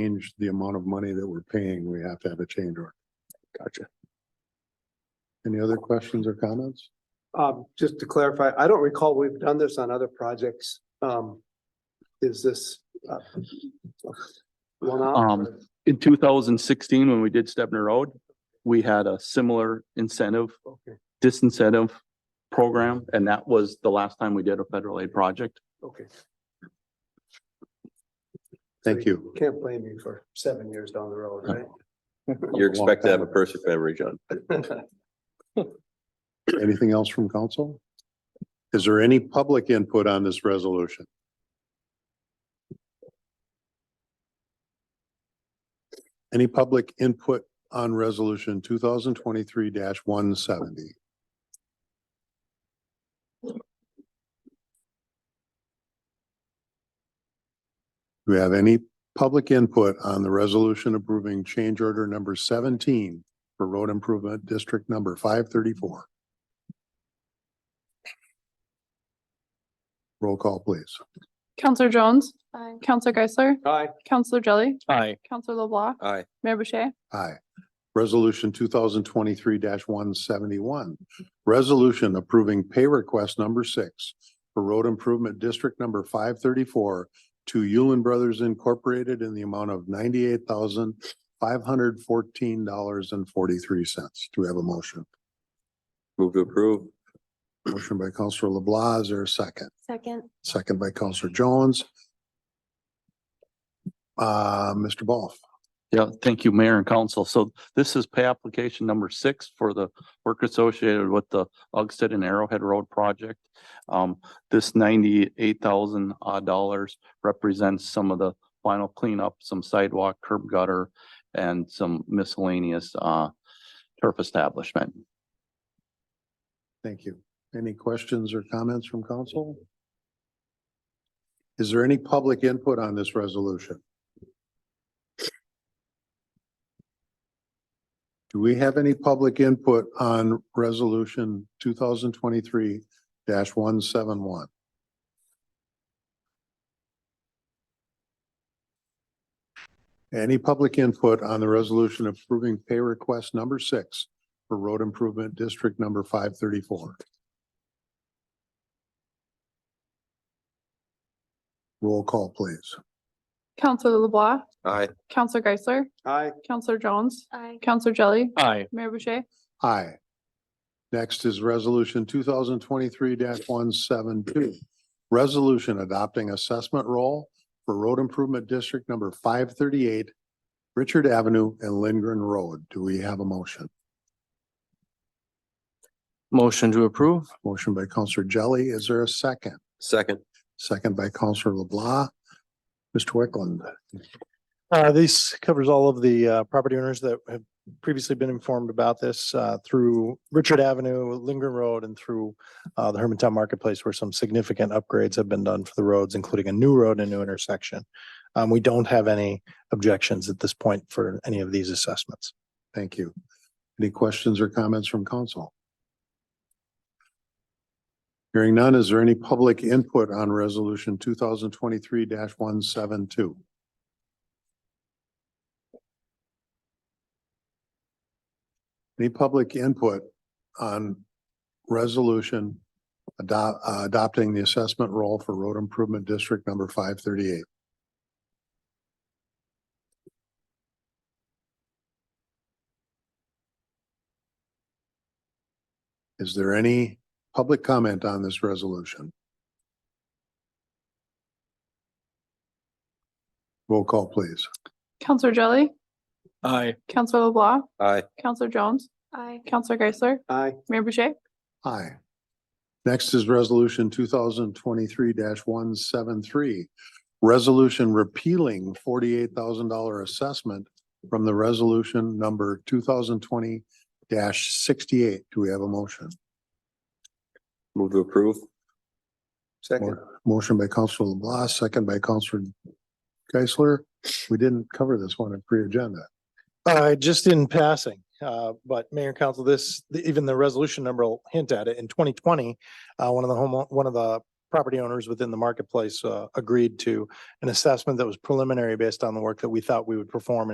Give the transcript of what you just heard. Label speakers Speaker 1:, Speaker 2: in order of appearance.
Speaker 1: change the amount of money that we're paying, we have to have a change order.
Speaker 2: Gotcha.
Speaker 1: Any other questions or comments?
Speaker 3: Um, just to clarify, I don't recall we've done this on other projects. Um, is this? uh, one-off?
Speaker 2: Um, In two thousand sixteen, when we did Stebner Road, we had a similar incentive,
Speaker 3: Okay,
Speaker 2: disincentive program, and that was the last time we did a federal aid project.
Speaker 3: okay.
Speaker 1: Thank you.
Speaker 3: Can't blame you for seven years down the road, right?
Speaker 4: You're expected to have a perfect beverage on.
Speaker 1: Anything else from council? Is there any public input on this resolution? Any public input on resolution two thousand twenty-three one seventy? Do we have any public input on the resolution approving change order number seventeen for road improvement district number five thirty-four? Roll call, please.
Speaker 5: Counselor Jones. Counselor Geisler.
Speaker 3: Hi,
Speaker 5: Counselor Jelly.
Speaker 2: Aye.
Speaker 5: Counselor LeBlanc.
Speaker 4: Aye.
Speaker 5: Mayor Boucher.
Speaker 1: Aye. Resolution two thousand twenty-three one seventy-one. Resolution approving pay request number six for road improvement district number five thirty-four to Yulin Brothers Incorporated in the amount of ninety-eight thousand five hundred fourteen dollars and forty-three cents. Do we have a motion?
Speaker 4: Move to approve.
Speaker 1: Motion by Counselor LeBlanc, is there a second?
Speaker 6: Second,
Speaker 1: Second by Counselor Jones. Uh, Mr. Ball.
Speaker 2: Yeah, thank you, Mayor and Council. So this is pay application number six for the work associated with the Ugsted and Arrowhead Road project. Um, this ninety-eight thousand odd dollars represents some of the final cleanup, some sidewalk, curb gutter, and some miscellaneous, uh, turf establishment.
Speaker 1: Thank you. Any questions or comments from council? Is there any public input on this resolution? Do we have any public input on resolution two thousand twenty-three one seven one? Any public input on the resolution approving pay request number six for road improvement district number five thirty-four. Roll call, please.
Speaker 5: Counselor LeBlanc.
Speaker 4: Aye.
Speaker 5: Counselor Geisler.
Speaker 3: hi,
Speaker 5: Counselor Jones.
Speaker 6: I,
Speaker 5: Counselor Jelly.
Speaker 2: Aye.
Speaker 5: Mayor Boucher.
Speaker 1: Aye. Next is resolution two thousand twenty-three one seven two. Resolution adopting assessment role for road improvement district number five thirty-eight, Richard Avenue and Lindgren Road. Do we have a motion?
Speaker 2: Motion to approve?
Speaker 1: Motion by Counselor Jelly. Is there a second?
Speaker 4: Second.
Speaker 1: Second by Counselor LeBlanc. Mr. Wickland.
Speaker 7: Uh, this covers all of the, uh, property owners that have previously been informed about this, uh, through Richard Avenue, Lindgren Road and through, uh, the Hermantown Marketplace where some significant upgrades have been done for the roads, including a new road and new intersection. Um, we don't have any objections at this point for any of these assessments.
Speaker 1: Thank you. Any questions or comments from council? Hearing none, is there any public input on resolution two thousand twenty-three one seven two? Any public input on resolution adopt, uh, adopting the assessment role for road improvement district number five thirty-eight? Is there any public comment on this resolution? Roll call, please.
Speaker 5: Counselor Jelly.
Speaker 2: Aye.
Speaker 5: Counselor LeBlanc.
Speaker 4: Aye.
Speaker 5: Counselor Jones.
Speaker 6: I,
Speaker 5: Counselor Geisler.
Speaker 3: hi,
Speaker 5: Mayor Boucher.
Speaker 1: Aye. Next is resolution two thousand twenty-three one seven three. Resolution repealing forty-eight thousand dollar assessment from the resolution number two thousand twenty sixty-eight. Do we have a motion?
Speaker 4: Move to approve.
Speaker 3: second.
Speaker 1: Motion by Counselor LeBlanc, second by Counselor Geisler. We didn't cover this one in pre-agenda.
Speaker 7: Uh, just in passing, uh, but Mayor and Council, this, even the resolution number will hint at it. In twenty twenty, uh, one of the home, one of the property owners within the marketplace uh, agreed to an assessment that was preliminary based on the work that we thought we would perform